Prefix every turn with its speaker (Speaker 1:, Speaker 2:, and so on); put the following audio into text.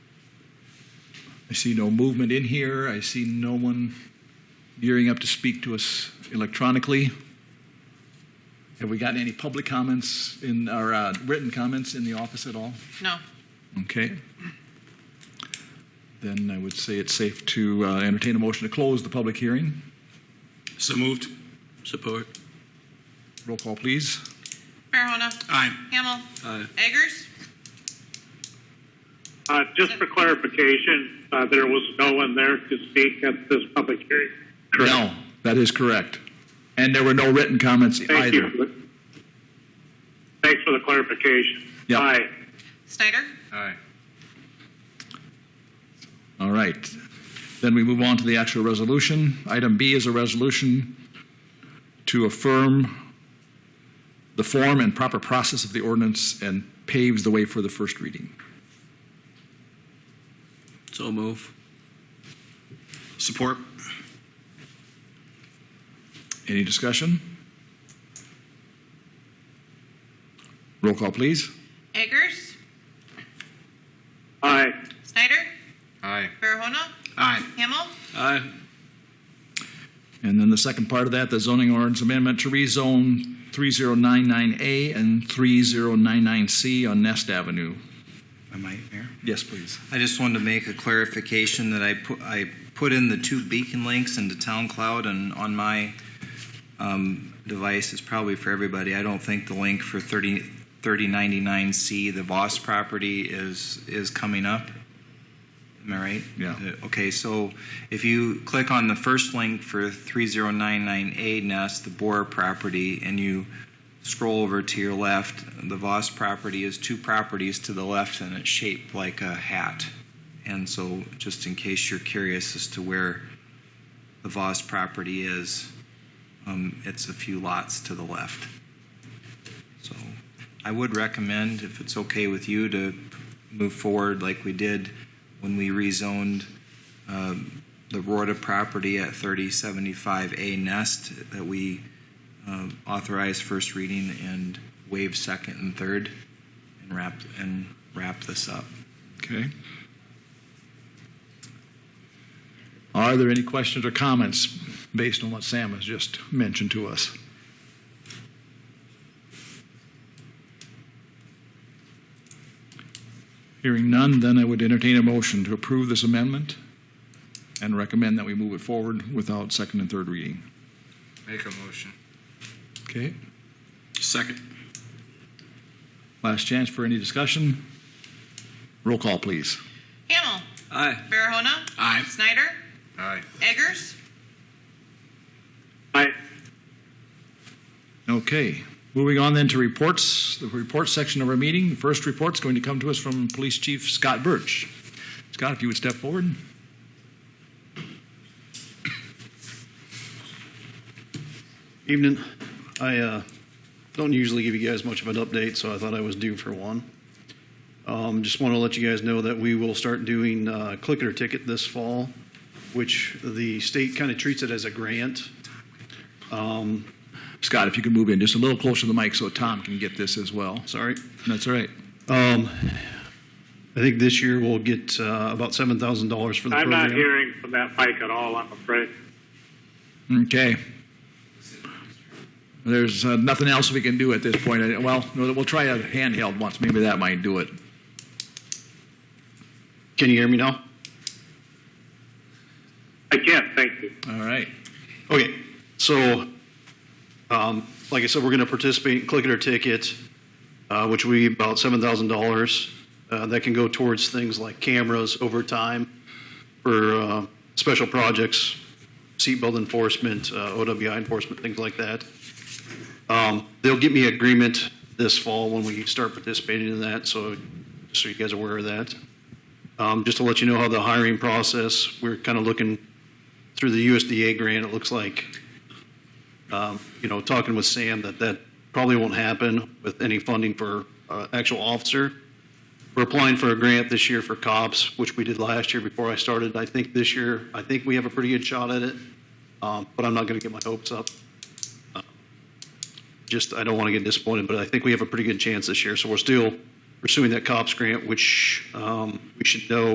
Speaker 1: I see no movement in here. I see no one gearing up to speak to us electronically. Have we gotten any public comments in, or uh, written comments in the office at all?
Speaker 2: No.
Speaker 1: Okay. Then I would say it's safe to uh, entertain a motion to close the public hearing.
Speaker 3: So moved. Support.
Speaker 1: Roll call, please.
Speaker 2: Farahona.
Speaker 3: Aye.
Speaker 2: Hamel.
Speaker 3: Aye.
Speaker 2: Eggers.
Speaker 4: Uh, Just for clarification, uh, there was no one there to speak at this public hearing.
Speaker 1: No, that is correct. And there were no written comments
Speaker 4: Thank
Speaker 1: either.
Speaker 4: you. Thanks for the clarification.
Speaker 1: Yeah.
Speaker 4: Aye.
Speaker 2: Snyder.
Speaker 3: Aye.
Speaker 1: All right. Then we move on to the actual resolution. Item B is a resolution to affirm the form and proper process of the ordinance and paves the way for the first reading.
Speaker 3: So move. Support.
Speaker 1: Any discussion? Roll call, please.
Speaker 2: Eggers.
Speaker 4: Aye.
Speaker 2: Snyder.
Speaker 3: Aye.
Speaker 2: Farahona.
Speaker 3: Aye.
Speaker 2: Hamel.
Speaker 3: Aye.
Speaker 1: And then the second part of that, the zoning ordinance amendment to rezone 3099A and 3099C on Nest Avenue.
Speaker 5: Am I, Mayor?
Speaker 1: Yes, please.
Speaker 5: I just wanted to make a clarification that I put, I put in the two beacon links into Town Cloud and on my um, device, it's probably for everybody. I don't think the link for 30 3099C, the Voss property, is, is coming up. Am I right?
Speaker 1: Yeah.
Speaker 5: Uh, Okay, so if you click on the first link for 3099A Nest, the Bora property, and you scroll over to your left, the Voss property is two properties to the left and it's shaped like a hat. And so, just in case you're curious as to where the Voss property is, um, it's a few lots to the left. So, I would recommend, if it's okay with you, to move forward like we did when we rezoned um, the Rorta property at 3075A Nest, that we um, authorize first reading and waive second and third and wrap, and wrap this up.
Speaker 1: Okay. Are there any questions or comments based on what Sam has just mentioned to us? Hearing none, then I would entertain a motion to approve this amendment and recommend that we move it forward without second and third reading.
Speaker 3: Make a motion.
Speaker 1: Okay.
Speaker 3: Second.
Speaker 1: Last chance for any discussion. Roll call, please.
Speaker 2: Hamel.
Speaker 3: Aye.
Speaker 2: Farahona.
Speaker 3: Aye.
Speaker 2: Snyder.
Speaker 3: Aye.
Speaker 2: Eggers.
Speaker 4: Aye.
Speaker 1: Okay, moving on then to reports, the report section of our meeting. The first report's going to come to us from Police Chief Scott Birch. Scott, if you would step forward.
Speaker 6: Evening. I uh, don't usually give you guys much of an update, so I thought I was due for one. Um, Just want to let you guys know that we will start doing uh, Click It or Ticket this fall, which the state kind of treats it as a grant.
Speaker 1: Scott, if you could move in just a little closer to the mic so Tom can get this as well.
Speaker 6: Sorry.
Speaker 1: That's all right.
Speaker 6: Um, I think this year we'll get uh, about $7,000 for the program.
Speaker 4: I'm not hearing from that mic at all, I'm afraid.
Speaker 1: Okay. There's uh, nothing else we can do at this point. I- Well, no, we'll try a handheld once, maybe that might do it.
Speaker 6: Can you hear me now?
Speaker 4: I can't, thank you.
Speaker 1: All right.
Speaker 6: Okay, so, um, like I said, we're going to participate in Click It or Ticket, uh, which will be about $7,000. Uh, That can go towards things like cameras over time for uh, special projects, seatbelt enforcement, uh, OWI enforcement, things like that. Um, They'll get me agreement this fall when we start participating in that, so, just so you guys are aware of that. Um, Just to let you know how the hiring process, we're kind of looking through the USDA grant, it looks like, um, you know, talking with Sam, that that probably won't happen with any funding for uh, actual officer. We're applying for a grant this year for cops, which we did last year before I started. I think this year, I think we have a pretty good shot at it, um, but I'm not going to get my hopes up. Uh, Just, I don't want to get disappointed, but I think we have a pretty good chance this year. So we're still pursuing that cops grant, which um, we should know